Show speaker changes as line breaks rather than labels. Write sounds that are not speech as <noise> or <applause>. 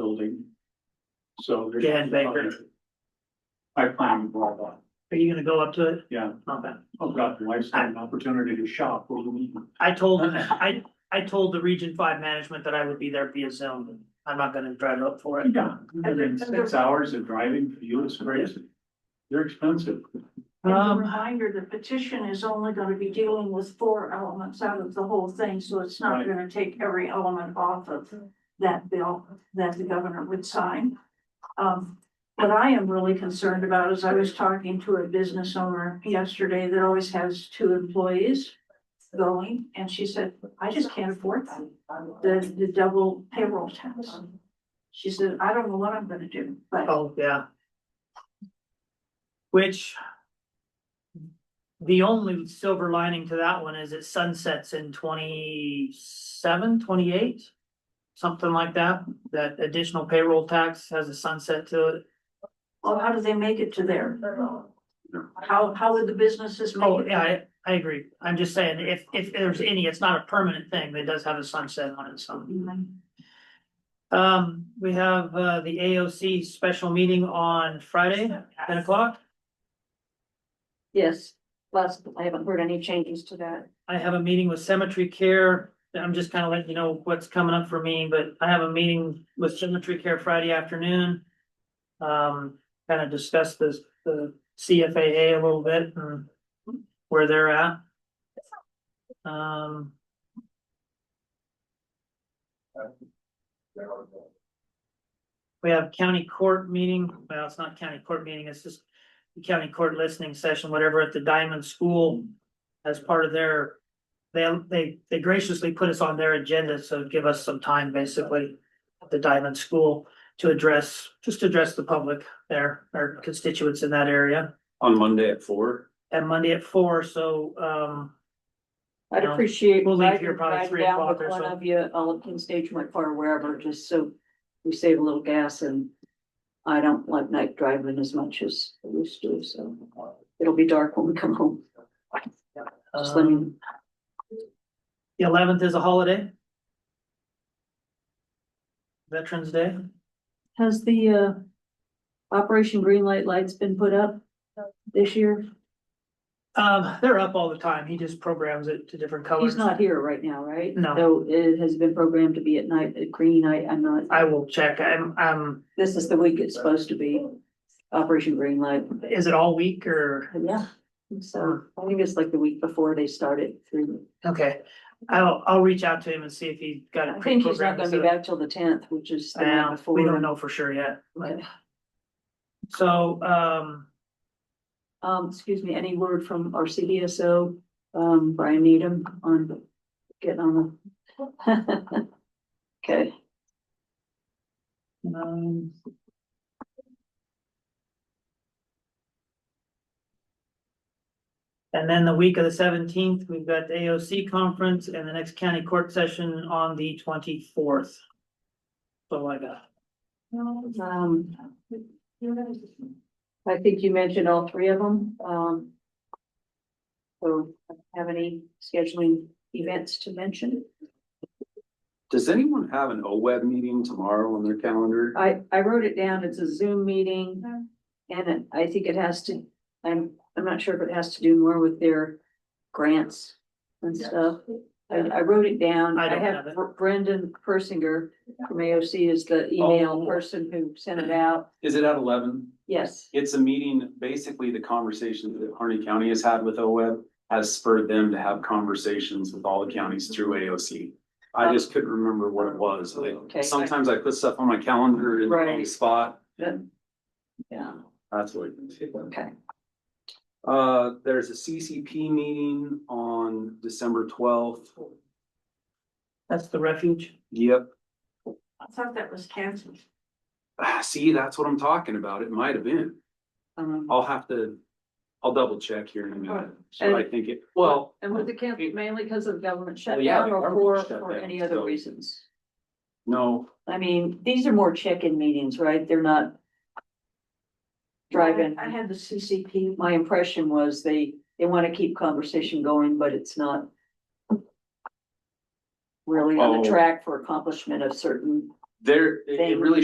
building. So. there's-
Dan Baker.
I plan to go on.
Are you gonna go up to it?
Yeah,
Not bad.
I've got the lifetime opportunity to shop over the weekend.
I told, I, I told the Region Five management that I would be there via Zoom. I'm not gonna drive up for it.
Yeah, within six hours of driving for you is crazy. They're expensive.
And a
Um,
reminder, the petition is only gonna be dealing with four elements out of the whole thing, so it's not
Right.
gonna take every element off of that bill that the governor would sign. Um, what I am really concerned about is I was talking to a business owner yesterday that always has two employees going, and she said, I just can't afford that, the, the double payroll tax. She said, I don't know what I'm gonna do, but
oh, yeah. Which. The only silver lining to that one is it sunsets in 27, 28, Something like that, that additional payroll tax has a sunset to it.
Well, how do they make it to there? How, how would the businesses make
Oh,
it?
yeah, I, I agree. I'm just saying, if, if there's any, it's not a permanent thing, that does have a sunset on it, so. Um, we have, uh, the AOC special meeting on Friday, ten o'clock.
Yes, plus I haven't heard any changes to that.
I have a meeting with Cemetery Care. I'm just kind of letting you know what's coming up for me, but I have a meeting with Cemetery Care Friday afternoon. Um, kind of discuss this, the CFAA a little bit and where they're at. Um, we have county court meeting. Well, it's not county court meeting, it's just the county court listening session, whatever, at the Diamond School as part of their. They, they, they graciously put us on their agenda, so give us some time basically at the Diamond School to address, just to address the public there, our constituents in that area.
On Monday at four?
And Monday at four, so, um,
I'd
No.
appreciate.
We'll leave
riding-
here probably
riding
three
down
o'clock
with
or
One
so.
of you, all of Penn Station, went far, wherever, just so we save a little gas and I don't like night driving as much as I used to, so it'll be dark when we come home. Just let me,
um, the eleventh is a holiday. Veterans Day.
has the uh Operation Greenlight lights been put up this year?
Um, they're up all the time. He just programs it to different colors.
He's not here right now, right?
No.
So it has been programmed to be at night, at green night, I'm not.
I will check. I'm, I'm,
This is the week it's supposed to be, Operation Greenlight.
is it all week or?
Yeah. So I think it's like the week before they started through.
Okay, I'll, I'll reach out to him and see if he got
I
it
think he's not gonna
pre-programmed.
be back till the tenth, which is the night
Now,
before.
we don't know for sure yet.
Right.
So, um,
Um, excuse me, any word from our CDSO, um, Brian Needham on getting on the. <laughs> Okay,
um, And then the week of the seventeenth, we've got the AOC conference and the next county court session on the twenty-fourth. So I got,
um. I think you mentioned all three of them, um. So have any scheduling events to mention?
Does anyone have an OWEB meeting tomorrow on their calendar?
I, I wrote it down, it's a Zoom meeting. And it- I think it has to, I'm, I'm not sure if it has to do more with their grants and stuff. I, I wrote it down,
I
I
don't have
have
it.
Brendan Persinger from AOC is the email
Oh.
person who sent it out,
Is it at eleven?
yes.
It's a meeting, basically the conversation that Harney County has had with OWEB has spurred them to have conversations with all the counties through AOC. I just couldn't remember what it was. Like,
Oh. Okay.
Sometimes I put stuff on my calendar in the wrong
Right.
spot.
Yep. Yeah,
That's what. it is.
okay,
Uh, there's a CCP meeting on December twelfth.
that's the refuge.
Yep. <sighs>
I thought that was canceled.
Ah, See, that's what I'm talking about. It might have been.
um,
I'll have to, I'll double check here in a minute. So I think it, well,
and was it canceled mainly because of government
Well, Oh, yeah,
shutdown
the
or for,
government shut
for
down,
any other
so-
reasons?
no,
I mean, these are more check-in meetings, right? They're not drive-in.
I had the CCP,
my impression was they, they want to keep conversation going, but it's not really on
Oh.
a track for accomplishment of certain
there, it- it
Thing.
really